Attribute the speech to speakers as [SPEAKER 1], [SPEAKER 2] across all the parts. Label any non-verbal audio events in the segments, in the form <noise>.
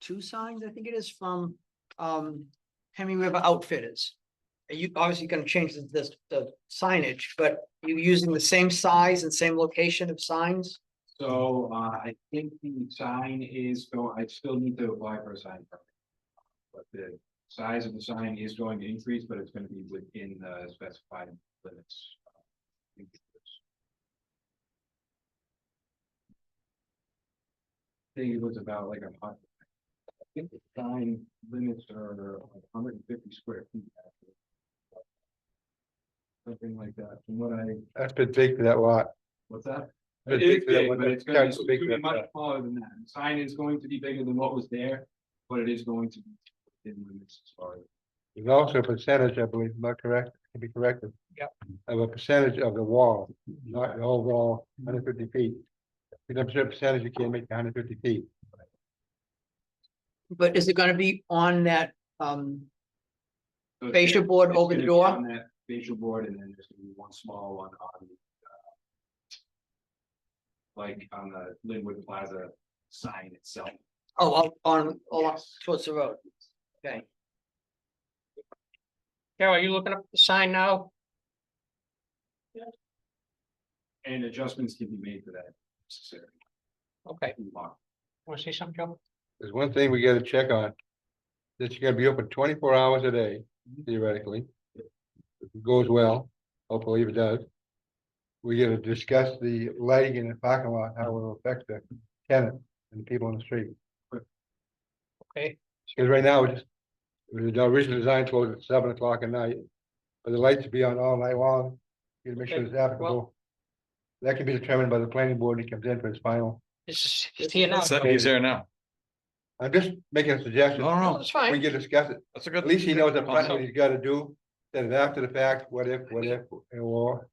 [SPEAKER 1] two signs, I think it is, from um Hemi River Outfitters. Are You obviously gonna change the this the signage, but you using the same size and same location of signs?
[SPEAKER 2] So uh, I think the sign is, go- I still need to apply for a sign permit. But the size of the sign is going to increase, but it's gonna be within the specified limits. I think it was about like a hundred. I think the sign limits are hundred and fifty square feet. actually. Something like that, from what I,
[SPEAKER 3] That's been big for that lot.
[SPEAKER 2] what's that?
[SPEAKER 3] Been
[SPEAKER 2] It is
[SPEAKER 3] big for that
[SPEAKER 2] big,
[SPEAKER 3] lot.
[SPEAKER 2] but it's
[SPEAKER 3] Yeah,
[SPEAKER 2] gonna be,
[SPEAKER 3] it's
[SPEAKER 2] it's
[SPEAKER 3] big
[SPEAKER 2] gonna be
[SPEAKER 3] for
[SPEAKER 2] much
[SPEAKER 3] that.
[SPEAKER 2] smaller than that. The Sign is going to be bigger than what was there, but it is going to be within limits as far as.
[SPEAKER 3] There's also a percentage, I believe, am I correct? Can be corrected.
[SPEAKER 1] Yep.
[SPEAKER 3] Of a percentage of the wall, not the whole wall, hundred fifty feet. If you a percentage, you can't make hundred fifty feet.
[SPEAKER 1] But is it gonna be on that um
[SPEAKER 2] so it's
[SPEAKER 1] fascia
[SPEAKER 2] gonna-
[SPEAKER 1] board
[SPEAKER 2] it's
[SPEAKER 1] over
[SPEAKER 2] gonna be
[SPEAKER 1] the door?
[SPEAKER 2] on that Facial board and then there's gonna be one small one on the. uh, Like on the Linwood Plaza sign itself.
[SPEAKER 1] Oh, out on along
[SPEAKER 2] Yes.
[SPEAKER 1] towards the road, okay. Carol, are you looking up the sign now?
[SPEAKER 2] And adjustments can be made for that. if necessary.
[SPEAKER 1] Okay,
[SPEAKER 2] Move on.
[SPEAKER 1] wanna say something, Joe?
[SPEAKER 3] There's one thing we gotta check on. That you're gonna be open twenty-four hours a day
[SPEAKER 1] Mm-hmm.
[SPEAKER 3] theoretically. If it goes well, hopefully if it does. We gotta discuss the lighting in the parking lot, how it will affect the tenant and the people on the street.
[SPEAKER 1] Okay.
[SPEAKER 3] Because right now, it's, the original design closed at seven o'clock at night, but the lights will be on all night long. You gotta make sure
[SPEAKER 1] Okay,
[SPEAKER 3] it's applicable. That can be determined by the planning board when he comes in for his final.
[SPEAKER 1] This is here now.
[SPEAKER 4] So he's there now.
[SPEAKER 3] I'm just making a suggestion.
[SPEAKER 4] No, no,
[SPEAKER 1] That's
[SPEAKER 3] We
[SPEAKER 1] fine,
[SPEAKER 3] can discuss it.
[SPEAKER 4] that's a good.
[SPEAKER 3] At least he knows upfront what
[SPEAKER 4] concept.
[SPEAKER 3] he's gotta do, then after the fact, what if, what if, and war,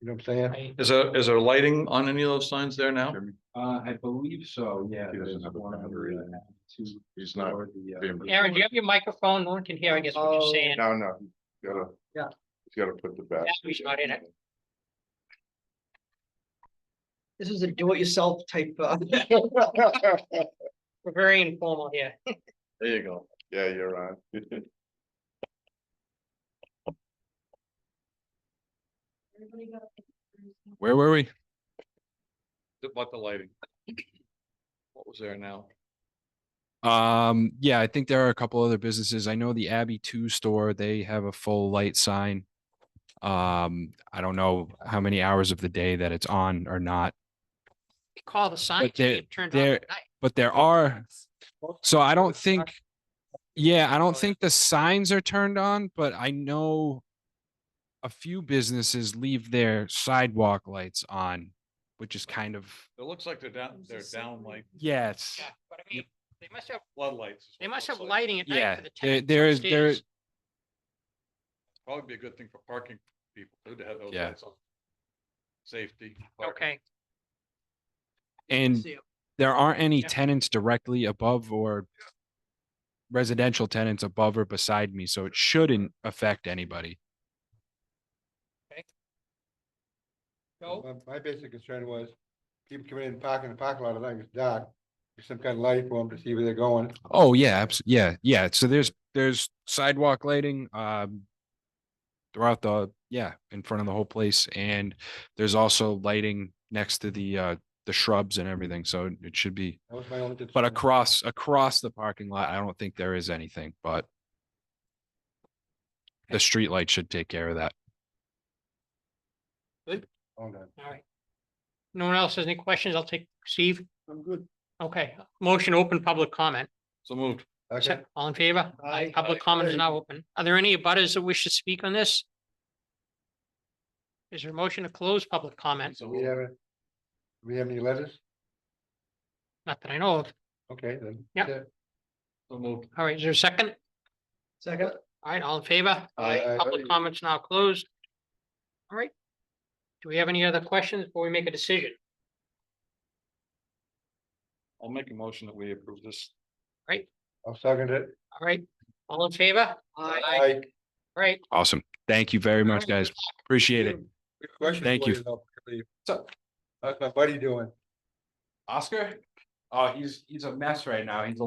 [SPEAKER 3] you know what I'm saying?
[SPEAKER 4] Is there, is there lighting on any of those signs there now?
[SPEAKER 2] Uh, I believe so, yeah.
[SPEAKER 5] He doesn't
[SPEAKER 2] there's
[SPEAKER 5] have a
[SPEAKER 2] one
[SPEAKER 5] boundary.
[SPEAKER 2] that I have to-
[SPEAKER 5] He's not
[SPEAKER 2] for the, uh,
[SPEAKER 5] being-
[SPEAKER 6] Aaron, do you have your microphone? No one can hear, I guess, what
[SPEAKER 1] Oh.
[SPEAKER 6] you're saying.
[SPEAKER 5] No, no, you gotta.
[SPEAKER 1] Yeah.
[SPEAKER 5] You gotta put the back.
[SPEAKER 6] Yeah, he's not in it.
[SPEAKER 1] this is a do-it-yourself type <laughs> uh
[SPEAKER 6] We're very informal here.
[SPEAKER 5] There you go. Yeah, you're on.
[SPEAKER 4] Where were we? What the lighting? What was there now?
[SPEAKER 7] Um, yeah, I think there are a couple other businesses. I know the Abbey Two store, they have a full light sign. Um, I don't know how many hours of the day that it's on or not,
[SPEAKER 6] We Call the sign.
[SPEAKER 7] But they're-
[SPEAKER 6] it turned
[SPEAKER 7] they're-
[SPEAKER 6] off at night.
[SPEAKER 7] but there are. So I don't think, yeah,
[SPEAKER 6] Oh,
[SPEAKER 7] I don't think the signs are turned on, but I know a few businesses leave their sidewalk lights on, which is kind of,
[SPEAKER 4] It looks like they're down, they're down like
[SPEAKER 7] yes.
[SPEAKER 6] Yeah, but I mean, they must have,
[SPEAKER 4] floodlights. is what
[SPEAKER 6] they
[SPEAKER 4] it
[SPEAKER 6] must
[SPEAKER 4] looks
[SPEAKER 6] have
[SPEAKER 4] like.
[SPEAKER 6] lighting at night
[SPEAKER 7] Yeah,
[SPEAKER 6] for the
[SPEAKER 7] there,
[SPEAKER 6] tenants.
[SPEAKER 7] there is, there,
[SPEAKER 6] upstairs.
[SPEAKER 4] Probably be a good thing for parking people too, to have those
[SPEAKER 7] Yeah.
[SPEAKER 4] lights on. Safety. parking.
[SPEAKER 6] Okay,
[SPEAKER 7] and
[SPEAKER 1] See,
[SPEAKER 7] there aren't any
[SPEAKER 6] Yeah.
[SPEAKER 7] tenants directly above or residential tenants above or beside me, so it shouldn't affect anybody.
[SPEAKER 6] so,
[SPEAKER 3] My, my basic concern was, people coming in, parking in the parking lot, I think it's dark, there's some kind of light for them to see where they're going.
[SPEAKER 7] Oh, yeah, abs- yeah, yeah. So there's, there's sidewalk lighting, um, throughout the, yeah, in front of the whole place, and there's also lighting next to the, uh, the shrubs and everything, so it should be,
[SPEAKER 3] That was my only concern.
[SPEAKER 7] but across, across the parking lot, I don't think there is anything, but the street light should take care of that.
[SPEAKER 3] Hold on.
[SPEAKER 6] all right. No one else has any questions? I'll take Steve.
[SPEAKER 1] I'm good.
[SPEAKER 6] Okay, motion open public comment.
[SPEAKER 4] So moved.
[SPEAKER 3] Okay,
[SPEAKER 6] All in favor?
[SPEAKER 1] Aye.
[SPEAKER 6] Public comment is now open. Are there any abutters that wish to speak on this? Is there a motion to close public comment?
[SPEAKER 3] so we have, a- we have any letters?
[SPEAKER 6] Not that I know of.
[SPEAKER 3] Okay, then.
[SPEAKER 6] Yeah.
[SPEAKER 3] that's it.
[SPEAKER 4] So moved.
[SPEAKER 6] All right, is there a second?
[SPEAKER 1] Second,
[SPEAKER 6] All right, all in favor?
[SPEAKER 3] Aye. Aye.
[SPEAKER 6] Public comments now closed. All right. Do we have any other questions before we make a decision?
[SPEAKER 4] I'll make a motion that we approve this.
[SPEAKER 3] I'll second it.
[SPEAKER 6] All right, all in favor?
[SPEAKER 1] I,
[SPEAKER 3] Aye.
[SPEAKER 6] All right,
[SPEAKER 7] Awesome. Thank you very much, guys. Appreciate it.
[SPEAKER 3] Good question
[SPEAKER 7] Thank
[SPEAKER 3] for
[SPEAKER 7] you.
[SPEAKER 3] though, Steve. How's my buddy doing?
[SPEAKER 2] Oscar? Oh, he's, he's a mess right now. He's a